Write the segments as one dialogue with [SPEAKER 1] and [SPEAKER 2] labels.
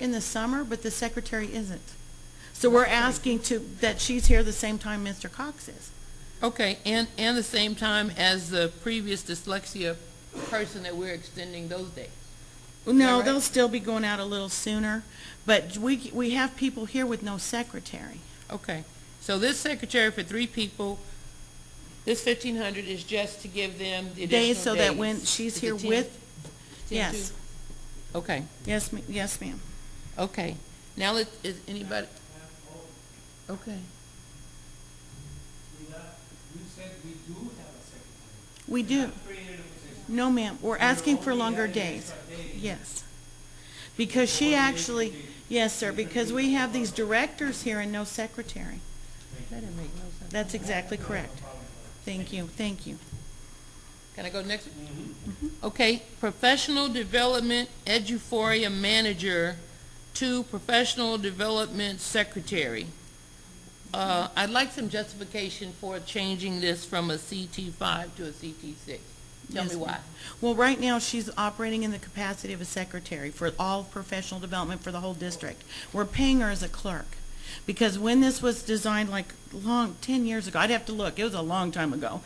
[SPEAKER 1] in the summer, but the secretary isn't. So we're asking to, that she's here the same time Mr. Cox is.
[SPEAKER 2] Okay, and, and the same time as the previous dyslexia person that we're extending those days.
[SPEAKER 1] No,
[SPEAKER 2] right?
[SPEAKER 1] they'll still be going out a little sooner, but we, we have people here with no secretary.
[SPEAKER 2] Okay, so this secretary for three people, this fifteen hundred is just to give them the additional
[SPEAKER 1] Days,
[SPEAKER 2] days.
[SPEAKER 1] so that when she's
[SPEAKER 2] Is it
[SPEAKER 1] here
[SPEAKER 2] 10?
[SPEAKER 1] with,
[SPEAKER 2] 10,
[SPEAKER 1] yes,
[SPEAKER 2] too? Okay,
[SPEAKER 1] yes, ma- yes, ma'am.
[SPEAKER 2] okay. Now, let- is anybody? Okay,
[SPEAKER 3] We not, you said we do have a secretary.
[SPEAKER 1] We do.
[SPEAKER 3] Created a position.
[SPEAKER 1] No, ma'am, we're asking for
[SPEAKER 3] only
[SPEAKER 1] longer
[SPEAKER 3] adding
[SPEAKER 1] days.
[SPEAKER 3] extra days.
[SPEAKER 1] Yes. Because she actually, yes, sir, because we have these directors here and no secretary.
[SPEAKER 2] that didn't make no sense.
[SPEAKER 1] That's exactly correct. Thank you, thank you.
[SPEAKER 2] Can I go next? Okay, professional development eduforia manager to professional development secretary. Uh, I'd like some justification for changing this from a CT five to a CT six. Tell
[SPEAKER 1] Yes,
[SPEAKER 2] me why.
[SPEAKER 1] ma'am. Well, right now, she's operating in the capacity of a secretary for all professional development for the whole district. We're paying her as a clerk. Because when this was designed, like, long, ten years ago, I'd have to look, it was a long time ago,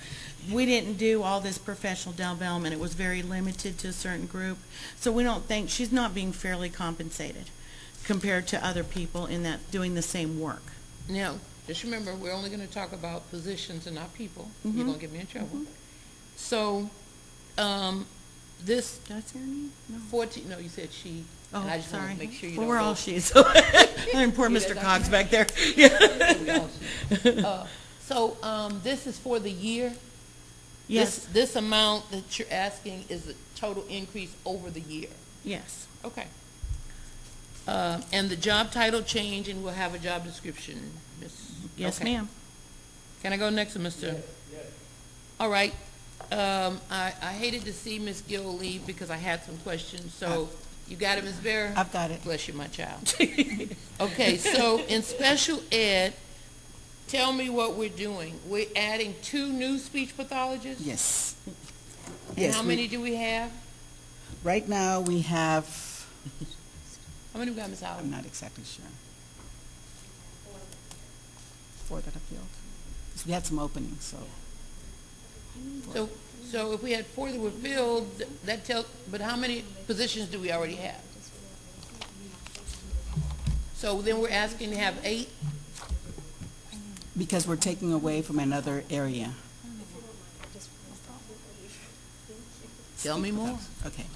[SPEAKER 1] we didn't do all this professional development. It was very limited to a certain group. So we don't think, she's not being fairly compensated compared to other people in that, doing the same work.
[SPEAKER 2] Now, just remember, we're only gonna talk about positions and not people.
[SPEAKER 1] Mm-hmm.
[SPEAKER 2] You're gonna get me in trouble. So, um, this
[SPEAKER 1] Did I say her name? No.
[SPEAKER 2] fourteen, no, you said she.
[SPEAKER 1] Oh,
[SPEAKER 2] and I just wanna
[SPEAKER 1] sorry.
[SPEAKER 2] Make sure you
[SPEAKER 1] Well,
[SPEAKER 2] don't
[SPEAKER 1] we're
[SPEAKER 2] go-
[SPEAKER 1] all she's. And poor
[SPEAKER 2] Yeah,
[SPEAKER 1] Mr.
[SPEAKER 2] that's-
[SPEAKER 1] Cox back there.
[SPEAKER 2] Uh, So, um, this is for the year? This-
[SPEAKER 1] Yes,
[SPEAKER 2] This amount that you're asking is the total increase over the year?
[SPEAKER 1] yes.
[SPEAKER 2] Okay. Uh, and the job title change, and we'll have a job description, Ms.
[SPEAKER 1] Yes,
[SPEAKER 2] Okay.
[SPEAKER 1] ma'am.
[SPEAKER 2] Can I go next, Mr.? All right, um, I, I hated to see Ms. Gill leave because I had some questions, so, you got it, Ms. Vera?
[SPEAKER 1] I've got it.
[SPEAKER 2] Bless you, my child. Okay, so in special ed, tell me what we're doing. We're adding two new speech pathologists?
[SPEAKER 4] Yes.
[SPEAKER 2] And how
[SPEAKER 4] we-
[SPEAKER 2] many do we have?
[SPEAKER 4] Right now, we have,
[SPEAKER 2] How many we got, Ms. Howard?
[SPEAKER 4] I'm not exactly sure. Four that I filled. 'Cause we had some openings, so.
[SPEAKER 2] So, so if we had four that were filled, th- that tell, but how many positions do we already have? So then we're asking to have eight?
[SPEAKER 4] Because we're taking away from another area.
[SPEAKER 2] Tell me more.
[SPEAKER 4] Okay.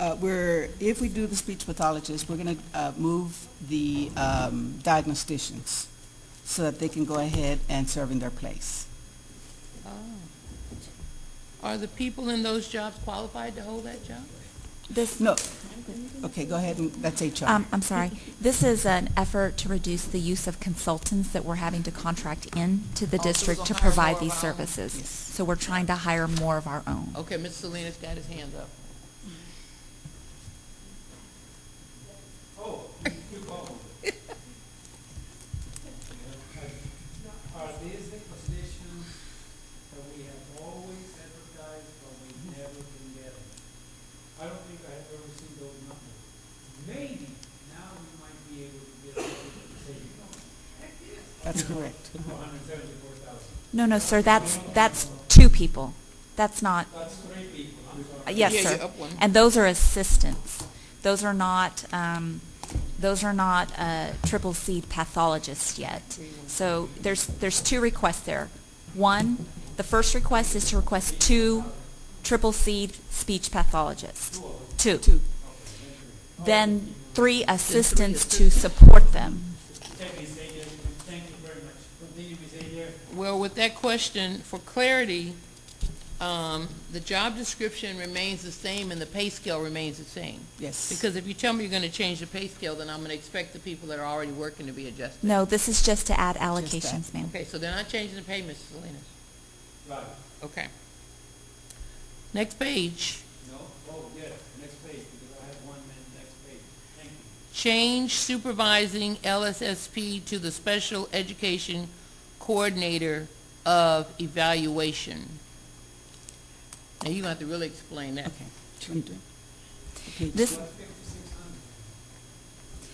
[SPEAKER 4] Uh, we're, if we do the speech pathologist, we're gonna, uh, move the, um, diagnosticians so that they can go ahead and serve in their place.
[SPEAKER 2] Oh. Are the people in those jobs qualified to hold that job?
[SPEAKER 5] This,
[SPEAKER 4] No, okay, go ahead and, that's HR.
[SPEAKER 5] um, I'm sorry, this is an effort to reduce the use of consultants that we're having to contract in to the
[SPEAKER 2] Oh, so we're
[SPEAKER 5] district to
[SPEAKER 2] gonna hire
[SPEAKER 5] provide
[SPEAKER 2] more
[SPEAKER 5] these
[SPEAKER 2] of our own. Oh.
[SPEAKER 5] services.
[SPEAKER 4] Yes.
[SPEAKER 5] So we're trying to hire more of our own.
[SPEAKER 2] Okay, Mr. Salinas got his hand up.
[SPEAKER 3] Oh, you called me. Are these the positions that we have always advertised, but we never can get them? I don't think I have ever seen those numbers. Maybe now we might be able to get them, say,
[SPEAKER 4] That's correct.
[SPEAKER 3] four hundred seventy-four thousand.
[SPEAKER 5] No, no, sir, that's, that's two people. That's not,
[SPEAKER 3] That's three people, I'm sorry.
[SPEAKER 5] uh, yes,
[SPEAKER 2] Yeah,
[SPEAKER 5] sir.
[SPEAKER 2] you're up one.
[SPEAKER 5] And those are assistants. Those are not, um, those are not, uh, triple C pathologists yet. So there's, there's two requests there. One, the first request is to request two triple C speech pathologists. Two.
[SPEAKER 4] Two.
[SPEAKER 5] Then three assistants to support them.
[SPEAKER 3] Thank you, Ms. Ayer. Thank you very much. Continue, Ms. Ayer.
[SPEAKER 2] Well, with that question, for clarity, um, the job description remains the same and the pay scale remains the same.
[SPEAKER 4] Yes.
[SPEAKER 2] Because if you tell me you're gonna change the pay scale, then I'm gonna expect the people that are already working to be adjusted.
[SPEAKER 5] No, this is just to add allocations, ma'am.
[SPEAKER 2] Okay, so they're not changing the pay, Mrs. Salinas.
[SPEAKER 3] Right,
[SPEAKER 2] Okay. Next page,
[SPEAKER 3] no, oh, yes, next page, because I have one minute, next page. Thank you.
[SPEAKER 2] change supervising LSSP to the special education coordinator of evaluation. Now, you're gonna have to really explain that.
[SPEAKER 4] Okay. Okay.
[SPEAKER 5] This,